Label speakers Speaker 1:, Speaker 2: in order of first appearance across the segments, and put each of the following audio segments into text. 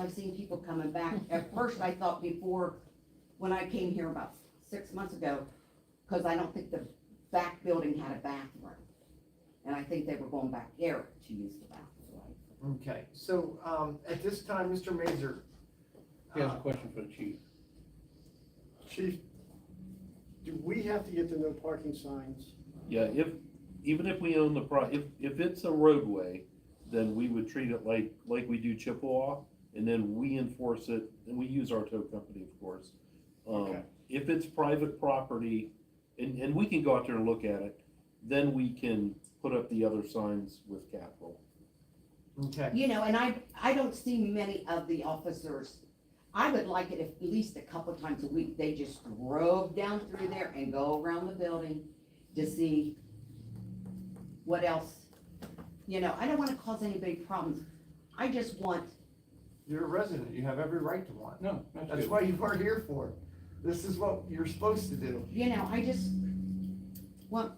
Speaker 1: I'm seeing people coming back. At first, I thought before, when I came here about six months ago, because I don't think the back building had a bathroom. And I think they were going back there to use the bathroom.
Speaker 2: Okay, so, um, at this time, Mr. Mazer.
Speaker 3: He has a
Speaker 2: uh,
Speaker 3: question for the chief.
Speaker 4: Chief, do we have to get the no parking signs?
Speaker 3: Yeah, if, even if we own the pro, if, if it's a roadway, then we would treat it like, like we do Chippewa, and then we enforce it, and we use our tow company, of course. Um,
Speaker 4: Okay.
Speaker 3: if it's private property, and, and we can go out there and look at it, then we can put up the other signs with capital.
Speaker 2: Okay,
Speaker 1: You know, and I, I don't see many of the officers. I would like it if at least a couple times a week, they just drove down through there and go around the building to see what else. You know, I don't wanna cause any big problems. I just want,
Speaker 2: you're a resident, you have every right to one.
Speaker 3: No,
Speaker 2: That's what you are here for. This is what you're supposed to do.
Speaker 1: you know, I just want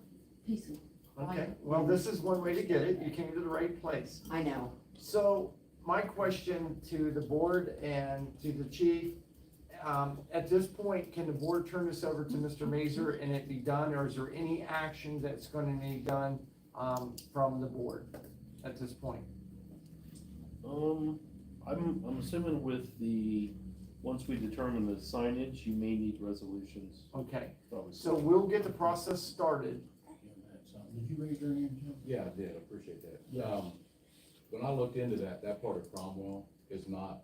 Speaker 1: peace. and-
Speaker 2: Okay, well, this is one way to get it. You came to the right place.
Speaker 1: I know.
Speaker 2: So my question to the board and to the chief, um, at this point, can the board turn this over to Mr. Mazer and it be done, or is there any action that's gonna need done, um, from the board at this point?
Speaker 3: Um, I'm, I'm assuming with the, once we determine the signage, you may need resolutions,
Speaker 2: Okay,
Speaker 3: probably.
Speaker 2: so we'll get the process started.
Speaker 5: Did you raise your hand, Jim?
Speaker 6: Yeah, I did, I appreciate that. Um, when I looked into that, that part of Cromwell is not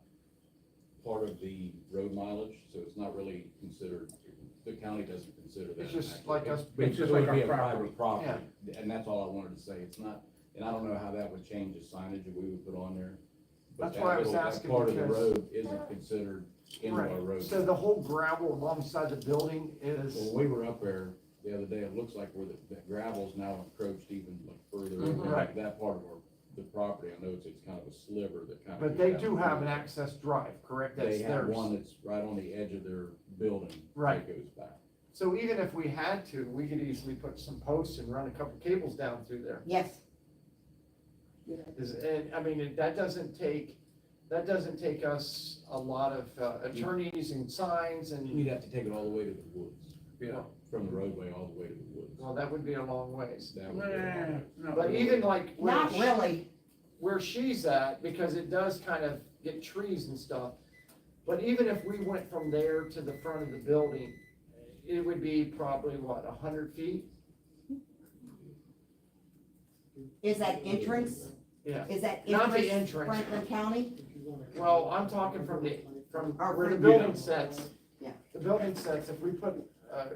Speaker 6: part of the road mileage, so it's not really considered, the county doesn't consider that.
Speaker 2: It's just like us-
Speaker 6: But
Speaker 5: It's just
Speaker 6: it would
Speaker 5: like
Speaker 6: be
Speaker 5: our
Speaker 6: a
Speaker 5: property.
Speaker 6: private Property, and that's all I wanted to say, it's not, and I don't know how that would change the signage that we would put on there. but
Speaker 2: That's
Speaker 6: that
Speaker 2: why I was
Speaker 6: little- that
Speaker 2: asking
Speaker 6: Part of the
Speaker 2: because-
Speaker 6: road isn't considered into our
Speaker 2: Right,
Speaker 6: road.
Speaker 2: so the whole gravel alongside the building is,
Speaker 6: When we were up there the other day, it looks like where the, that gravel's now encroached even like further
Speaker 2: Mhm.
Speaker 6: over
Speaker 2: Right.
Speaker 6: that part of our, the property. I know it's, it's kind of a sliver that kind of.
Speaker 2: but they do have an access drive, correct? That's
Speaker 6: They have
Speaker 2: theirs.
Speaker 6: one that's right on the edge of their building.
Speaker 2: Right.
Speaker 6: That goes back.
Speaker 2: So even if we had to, we could easily put some posts and run a couple cables down through there.
Speaker 1: Yes.
Speaker 2: Is, and, I mean, it- that doesn't take, that doesn't take us a lot of uh, attorneys and signs and,
Speaker 6: You'd have to take it all the way to the woods.
Speaker 2: Yeah.
Speaker 6: From the roadway all the way to the woods.
Speaker 2: well, that would be a long ways.
Speaker 6: That
Speaker 5: No,
Speaker 6: would be a
Speaker 5: no,
Speaker 6: lot.
Speaker 5: no, no, no.
Speaker 2: But even like where,
Speaker 1: Not
Speaker 2: she-
Speaker 1: really.
Speaker 2: where she's at, because it does kind of get trees and stuff. But even if we went from there to the front of the building, it would be probably what, a hundred feet?
Speaker 1: Is that entrance?
Speaker 2: Yeah.
Speaker 1: Is that
Speaker 2: Not the
Speaker 1: entrance
Speaker 2: entrance.
Speaker 1: Franklin County?
Speaker 2: Well, I'm talking from the, from
Speaker 1: Our-
Speaker 2: where the
Speaker 1: Yeah.
Speaker 2: building sets.
Speaker 1: Yeah.
Speaker 2: The building sets, if we put, uh,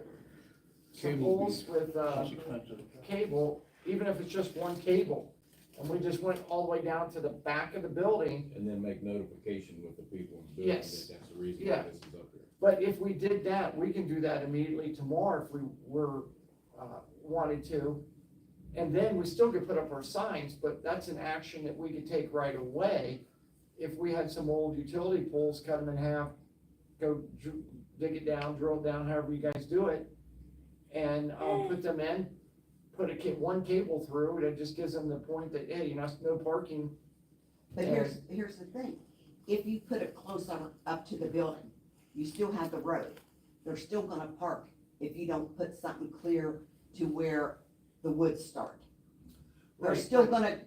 Speaker 2: some
Speaker 3: Cable.
Speaker 2: poles with, uh,
Speaker 3: It's expensive.
Speaker 2: cable, even if it's just one cable, and we just went all the way down to the back of the building.
Speaker 6: And then make notification with the people in the building
Speaker 2: Yes.
Speaker 6: that that's the reason why
Speaker 2: Yeah.
Speaker 6: this is up there.
Speaker 2: But if we did that, we can do that immediately tomorrow if we were, uh, wanted to. And then we still could put up our signs, but that's an action that we could take right away. If we had some old utility poles, cut them in half, go dr- dig it down, drill it down, however you guys do it. And, um, put them in, put a ca- one cable through, and it just gives them the point that, hey, you know, no parking
Speaker 1: But here's, here's the thing, if you put it closer up to the building, you still have the road. They're still gonna park if you don't put something clear to where the woods start. They're
Speaker 2: Right.
Speaker 1: still gonna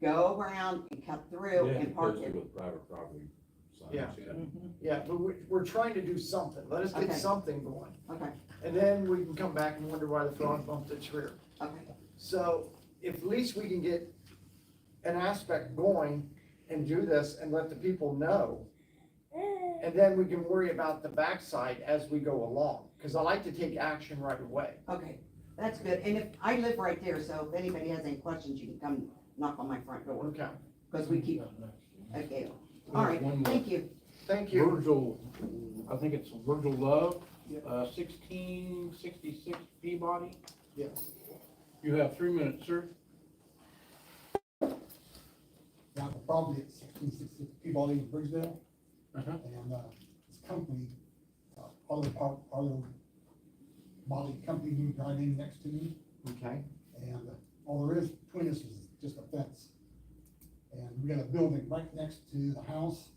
Speaker 1: go around and cut through
Speaker 6: Yeah,
Speaker 1: and park it.
Speaker 6: posted With private property signs.
Speaker 2: Yeah.
Speaker 1: Mm-hmm.
Speaker 2: Yeah, but we, we're trying to do something, let us
Speaker 1: Okay.
Speaker 2: get something going,
Speaker 1: Okay,
Speaker 2: and then we can come back and wonder why the frog bumped its rear.
Speaker 1: okay.
Speaker 2: So, if at least we can get an aspect going and do this and let the people know. And then we can worry about the backside as we go along, cause I like to take action right away.
Speaker 1: Okay, that's good, and if, I live right there, so if anybody has any questions, you can come knock on my front door,
Speaker 2: Okay,
Speaker 1: because we keep, okay, all right,
Speaker 3: One more.
Speaker 1: thank you.
Speaker 2: thank you.
Speaker 5: Virgil, I think it's Virgil Love, uh, sixteen sixty-six Peabody.
Speaker 2: Yeah.
Speaker 5: You have three minutes, sir.
Speaker 7: I have a property at sixteen sixty Peabody in Bridgeville.
Speaker 5: Uh-huh.
Speaker 7: And, uh, this company, uh, Arlo Park, Arlo Molly Company moved right in next to me.
Speaker 2: Okay,
Speaker 7: And uh, all there is between us is just a fence. And we got a building right next to the house